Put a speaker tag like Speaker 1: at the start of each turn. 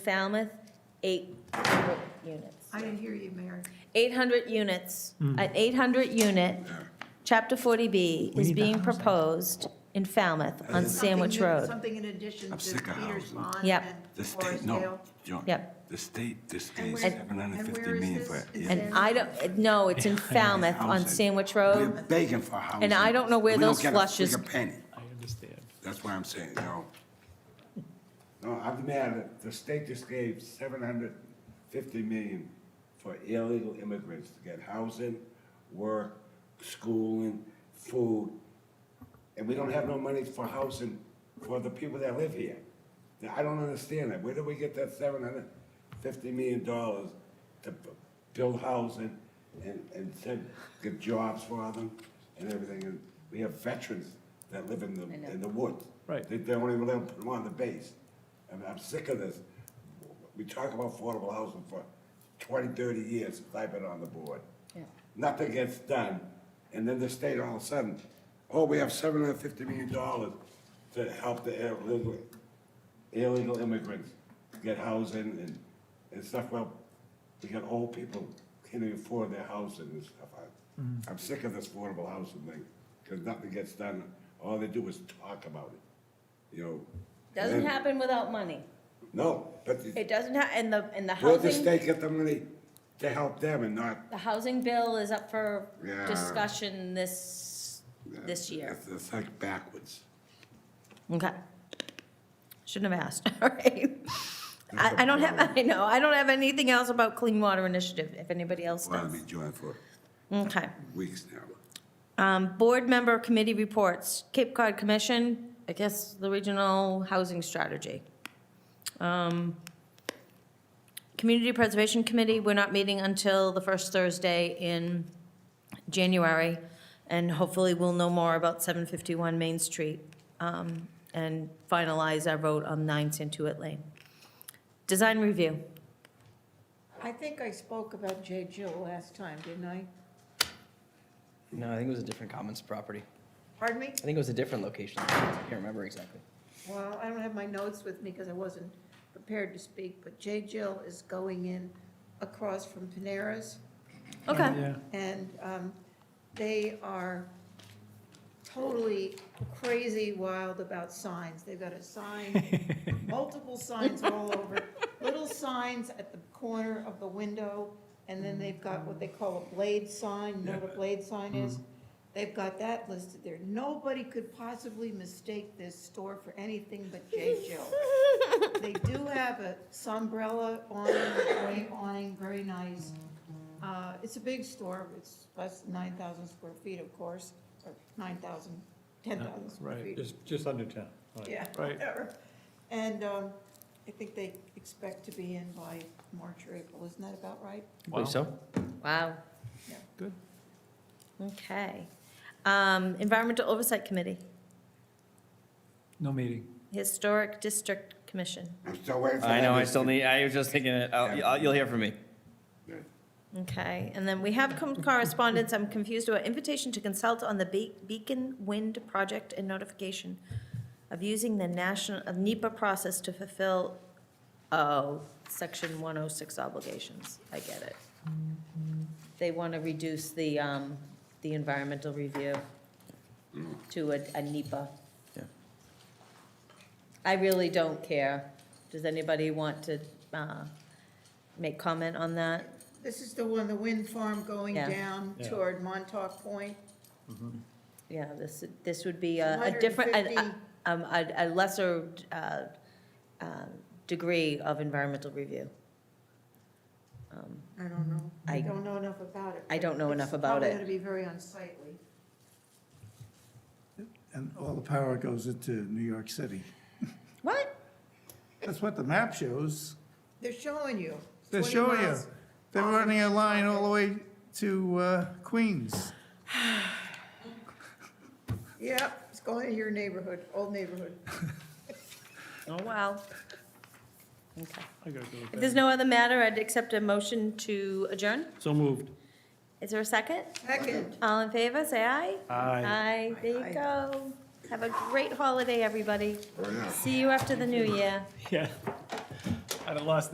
Speaker 1: Falmouth, eight hundred units.
Speaker 2: I didn't hear you, Mayor.
Speaker 1: Eight hundred units, an eight hundred unit, chapter forty B is being proposed in Falmouth on Sandwich
Speaker 2: Something in-
Speaker 1: Road.
Speaker 2: Something in addition to
Speaker 3: I'm sick of
Speaker 2: Peters
Speaker 3: housing.
Speaker 2: Pond
Speaker 1: Yep.
Speaker 2: and
Speaker 3: The
Speaker 2: Forest
Speaker 3: state, no,
Speaker 2: Hill.
Speaker 3: John.
Speaker 1: Yep.
Speaker 3: The state, this
Speaker 2: And
Speaker 3: state,
Speaker 2: where-
Speaker 3: seven hundred
Speaker 2: and
Speaker 3: and fifty
Speaker 2: where is
Speaker 3: million
Speaker 2: this?
Speaker 3: for it.
Speaker 2: Is
Speaker 3: Yeah.
Speaker 1: And I don't, no, it's in Falmouth on
Speaker 3: Housing.
Speaker 1: Sandwich
Speaker 3: We're
Speaker 1: Road.
Speaker 3: begging for housing.
Speaker 1: um, I don't know where
Speaker 3: We don't
Speaker 1: those
Speaker 3: get a
Speaker 1: flushes-
Speaker 3: friggin' penny.
Speaker 4: I understand.
Speaker 3: That's why I'm saying, no. No, I'm mad that the state just gave seven hundred fifty million for illegal immigrants to get housing, work, schooling, food. And we don't have no money for housing for the people that live here. Now, I don't understand that. Where do we get that seven hundred fifty million dollars to b- build housing and, and send, give jobs for them and everything? And we have veterans that live in the, in the woods.
Speaker 4: Right.
Speaker 3: They, they only live on the base. I mean, I'm sick of this. We talk about affordable housing for 20, 30 years since I've been on the board. Nothing gets done, and then the state all of a sudden, oh, we have seven hundred fifty million dollars to help the illegal, illegal immigrants get housing and, and stuff. Well, we got old people can't even afford their housing and stuff. I-
Speaker 5: Mm-hmm.
Speaker 3: I'm sick of this affordable housing thing, because nothing gets done. All they do is talk about it, you know.
Speaker 1: Doesn't
Speaker 3: And-
Speaker 1: happen without money.
Speaker 3: No, but
Speaker 1: It doesn't ha, and the, and the
Speaker 3: where the
Speaker 1: housing,
Speaker 3: state get the money to help them and not
Speaker 1: the housing bill is up for
Speaker 3: Yeah.
Speaker 1: discussion this, this year.
Speaker 3: uh, It's- It's like backwards.
Speaker 1: Okay. Shouldn't have asked, all right. I, I don't have, I know, I don't have anything else about Clean Water Initiative, if anybody else
Speaker 3: Well, I've
Speaker 1: does.
Speaker 3: been joined for
Speaker 1: Okay.
Speaker 3: weeks now.
Speaker 1: Um, board member committee reports, Cape Cod Commission, I guess the Regional Housing Strategy. Um, Community Preservation Committee, we're not meeting until the first Thursday in January, and hopefully we'll know more about 751 Main Street um, and finalize our vote on 9 Santuit Lane. Design review,
Speaker 2: I think I spoke about J. Jill last time, didn't I?
Speaker 5: No, I think it was a different Commons property.
Speaker 2: Parded me?
Speaker 5: I think it was a different location. I can't remember exactly.
Speaker 2: Well, I don't have my notes with me because I wasn't prepared to speak, but J. Jill is going in across from Panera's.
Speaker 1: okay.
Speaker 4: Yeah,
Speaker 2: And um, they are totally crazy wild about signs. They've got a sign, multiple signs all over, little signs at the corner of the window, and then they've got what they call a blade sign, you know what a blade sign is? They've got that listed there. Nobody could possibly mistake this store for anything but J. Jill. They do have a sunbrella awning, gray awning, very nice. Uh, It's a big store, it's less than 9,000 square feet, of course, or 9,000, 10,000 square
Speaker 4: right.
Speaker 2: feet.
Speaker 6: Just, just under ten. right.
Speaker 2: Yeah,
Speaker 4: Right.
Speaker 2: whatever. And um, I think they expect to be in by March or April, isn't that about right?
Speaker 5: I believe
Speaker 4: Wow.
Speaker 5: so.
Speaker 1: Wow.
Speaker 2: Yeah.
Speaker 4: Good.
Speaker 1: Okay. Um, Environmental Oversight Committee,
Speaker 4: no meeting.
Speaker 1: Historic District Commission.
Speaker 3: I'm still waiting for.
Speaker 5: I know, I
Speaker 3: that.
Speaker 5: still need, I was just thinking it. I'll- I'll- You'll hear from me.
Speaker 1: Okay, and then we have com- correspondence, I'm confused about invitation to consult on the Be- Beacon Wind Project and notification of using the national, of NEPA process to fulfill, oh, section one oh six obligations, I get it. They want to reduce the, um, the environmental review to a, a NEPA.
Speaker 5: Yeah.
Speaker 1: I really don't care. Does anybody want to, uh, make comment on that?
Speaker 2: This is the one, the wind farm going
Speaker 1: Yeah.
Speaker 2: down
Speaker 6: Yeah.
Speaker 2: toward Montauk Point.
Speaker 1: Yeah, this, this would be a a
Speaker 2: It's
Speaker 1: different, an-
Speaker 2: 150.
Speaker 1: um, a, a lesser uh, um, degree of environmental review.
Speaker 2: I don't know.
Speaker 1: I-
Speaker 2: I don't know enough about it.
Speaker 1: I don't know
Speaker 2: It's
Speaker 1: enough about it.
Speaker 2: Probably going to be very unsightly.
Speaker 7: And all the power goes into New York City.
Speaker 1: What?
Speaker 7: That's what the map shows.
Speaker 2: They're showing you.
Speaker 7: They're
Speaker 2: 20
Speaker 7: showing you.
Speaker 2: miles.
Speaker 7: They're running a line all the way to uh, Queens.
Speaker 2: Yep, it's going to your neighborhood, old neighborhood.
Speaker 1: Oh, wow. Okay.
Speaker 4: I gotta go
Speaker 1: If
Speaker 4: with
Speaker 1: there's
Speaker 4: that.
Speaker 1: no other matter, I'd accept a motion to adjourn.
Speaker 4: So moved.
Speaker 1: Is there a second?
Speaker 2: Second.
Speaker 1: All in favor, say aye.
Speaker 4: Aye.
Speaker 1: Aye, there you
Speaker 2: Aye.
Speaker 1: go. Have a great holiday, everybody.
Speaker 3: Oh, yeah.
Speaker 1: See you after the new year.
Speaker 4: Yeah.
Speaker 6: I'd have lost